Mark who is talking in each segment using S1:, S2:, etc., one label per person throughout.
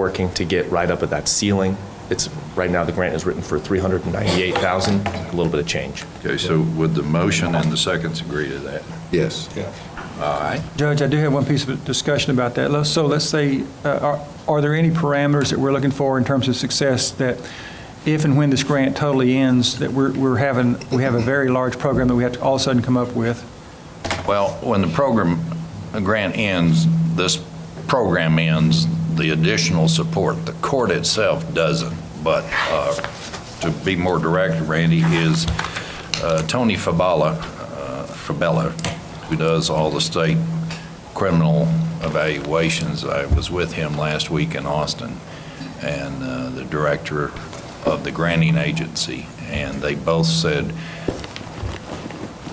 S1: working to get right up at that ceiling. It's, right now, the grant is written for 398,000, a little bit of change.
S2: Okay, so would the motion and the seconds agree to that?
S3: Yes.
S2: All right.
S4: Judge, I do have one piece of discussion about that. Let's- So let's say, uh, are are there any parameters that we're looking for in terms of success that if and when this grant totally ends, that we're we're having, we have a very large program that we have to all of a sudden come up with?
S2: Well, when the program, the grant ends, this program ends, the additional support, the court itself doesn't. But uh, to be more direct, Randy, is uh, Tony Fabella, uh, Fabella, who does all the state criminal evaluations. I was with him last week in Austin, and uh, the director of the granting agency, and they both said,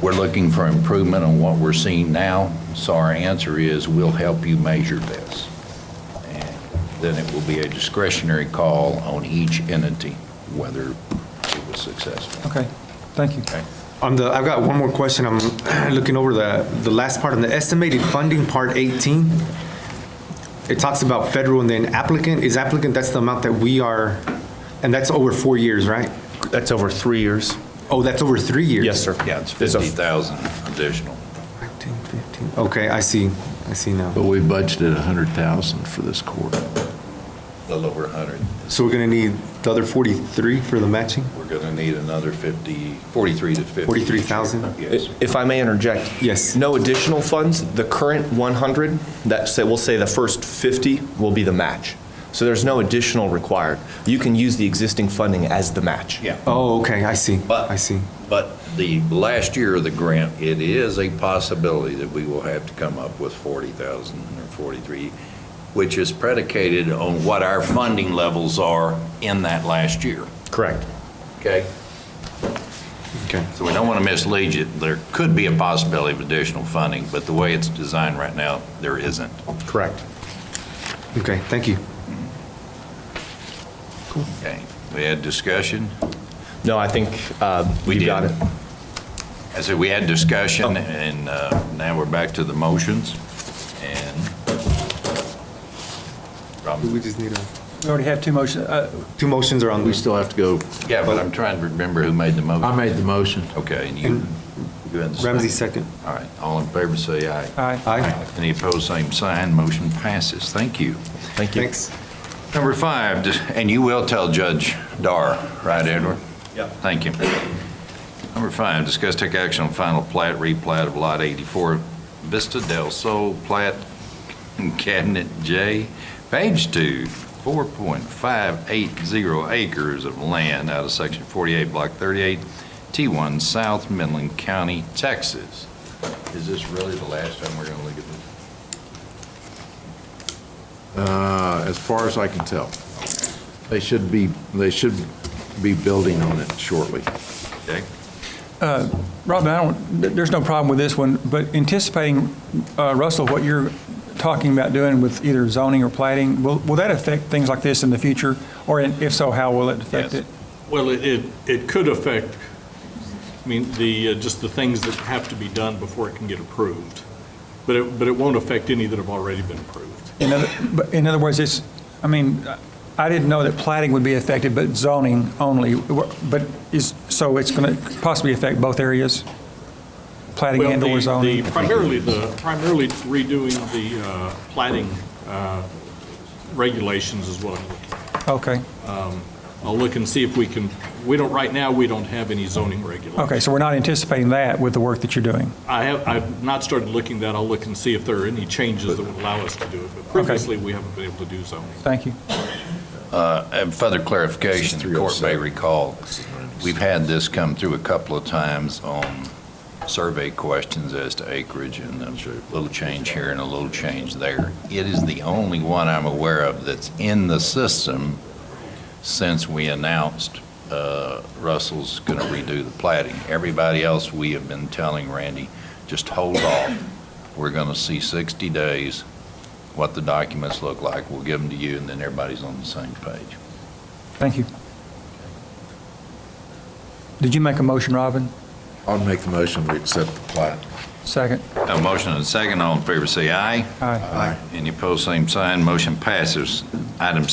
S2: we're looking for improvement on what we're seeing now, so our answer is, we'll help you measure this. And Then it will be a discretionary call on each entity, whether it was successful.
S4: Okay, thank you.
S5: On the, I've got one more question. I'm looking over the, the last part on the estimated funding, part 18. It talks about federal and then applicant. Is applicant, that's the amount that we are, and that's over four years, right?
S1: That's over three years?
S5: Oh, that's over three years?
S1: Yes, sir.
S2: Yeah, it's
S1: There's a-
S2: 50,000 additional.
S5: 14, 15. Okay, I see. I see now.
S6: But we budgeted 100,000 for this quarter.
S2: A little over 100.
S5: So we're going to need the other 43 for the matching?
S2: We're going to need another 50, 43 to 50.
S5: 43,000?
S2: Yes.
S1: If I may interject.
S5: Yes.
S1: No additional funds, the current 100, that say, we'll say the first 50 will be the match. So there's no additional required. You can use the existing funding as the match.
S2: Yeah.
S5: Oh, okay, I see.
S2: But-
S5: I see.
S2: But the last year of the grant, it is a possibility that we will have to come up with 40,000 or 43, which is predicated on what our funding levels are in that last year,
S1: Correct.
S2: okay?
S5: Okay.
S2: So we don't want to mislead you. There could be a possibility of additional funding, but the way it's designed right now, there isn't.
S1: Correct.
S5: Okay, thank you.
S2: Okay? We had discussion.
S1: No, I think um,
S2: We
S1: you
S2: did.
S1: got it.
S2: I said, we had discussion, and uh, now we're back to the motions, and... Robin?
S5: We just need a,
S4: We already have two motions. Uh,
S5: two motions are on
S6: We
S5: the,
S6: still have to go,
S2: Yeah, but I'm trying to remember who made the motion.
S6: I made the motion.
S2: Okay, and you, you had the second.
S5: Ramsey second.
S2: All right, all in favor, say aye.
S4: Aye.
S5: Aye.
S2: Any opposed, same sign, motion passes, thank you.
S1: Thank you.
S5: Thanks.
S2: Number five, dis- and you will tell Judge Dar, right, Edward?
S1: Yep.
S2: Thank you. Number five, discuss take action on final plat, replat of Lot 84, Vista del Sol, plat Cabinet J, page two, 4.580 acres of land out of Section 48, Block 38, T1 South, Midland County, Texas. Is this really the last time we're going to look at this?
S6: Uh, As far as I can tell, they should be, they should be building on it shortly.
S2: Okay?
S4: uh, Robin, I don't, th- there's no problem with this one, but anticipating, uh, Russell, what you're talking about doing with either zoning or plating, will will that affect things like this in the future? Or in- if so, how will it affect
S2: Yes.
S4: it?
S7: Well, it- it, it could affect, I mean, the, uh, just the things that have to be done before it can get approved. But it, but it won't affect any that have already been approved.
S4: In other, but in other words, it's, I mean, I didn't know that plating would be affected, but zoning only. But is, so it's going to possibly affect both areas? Plating
S7: Well,
S4: and
S7: the-
S4: or zoning?
S7: the- Primarily, the, primarily redoing the uh, plating uh, regulations is what I'm looking at.
S4: Okay,
S7: I'll look and see if we can, we don't, right now, we don't have any zoning regulations.
S4: okay, so we're not anticipating that with the work that you're doing?
S7: I have, I've not started looking that. I'll look and see if there are any changes that would allow us to do it. But previously, we haven't been able to do zoning.
S4: Thank you.
S2: Uh, And further clarification, the court may
S6: 307.
S2: recall, we've had this come through a couple of times on survey questions as to acreage and a little change here and a little change there. It is the only one I'm aware of that's in the system since we announced uh, Russell's going to redo the plating. Everybody else, we have been telling Randy, just hold off. We're going to see 60 days, what the documents look like. We'll give them to you, and then everybody's on the same page.
S4: Thank you. Did you make a motion, Robin?
S6: I'll make the motion, we accept the plat.
S4: Second?
S2: Have a motion and a second. All in favor, say aye.
S4: Aye.
S2: Any opposed, same sign. Motion passes. Item